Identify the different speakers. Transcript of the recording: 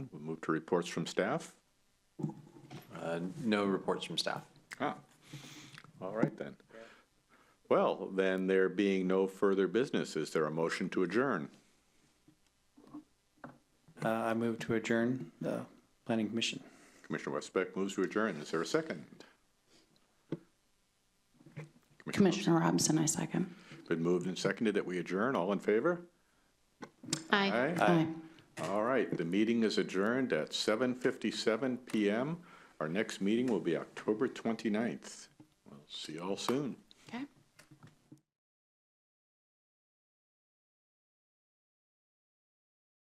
Speaker 1: to reports from staff?
Speaker 2: Uh, No reports from staff.
Speaker 1: Ah, all right then. Well, then there being no further business, is there a motion to adjourn?
Speaker 3: Uh, I move to adjourn the planning commission.
Speaker 1: Commissioner Westbeck moves to adjourn. Is there a second?
Speaker 4: Commissioner Robinson, I second.
Speaker 1: Been moved and seconded that we adjourn. All in favor? Aye.
Speaker 4: Aye.
Speaker 1: All right, the meeting is adjourned at 7:57 PM. Our next meeting will be October 29th. We'll See you all soon.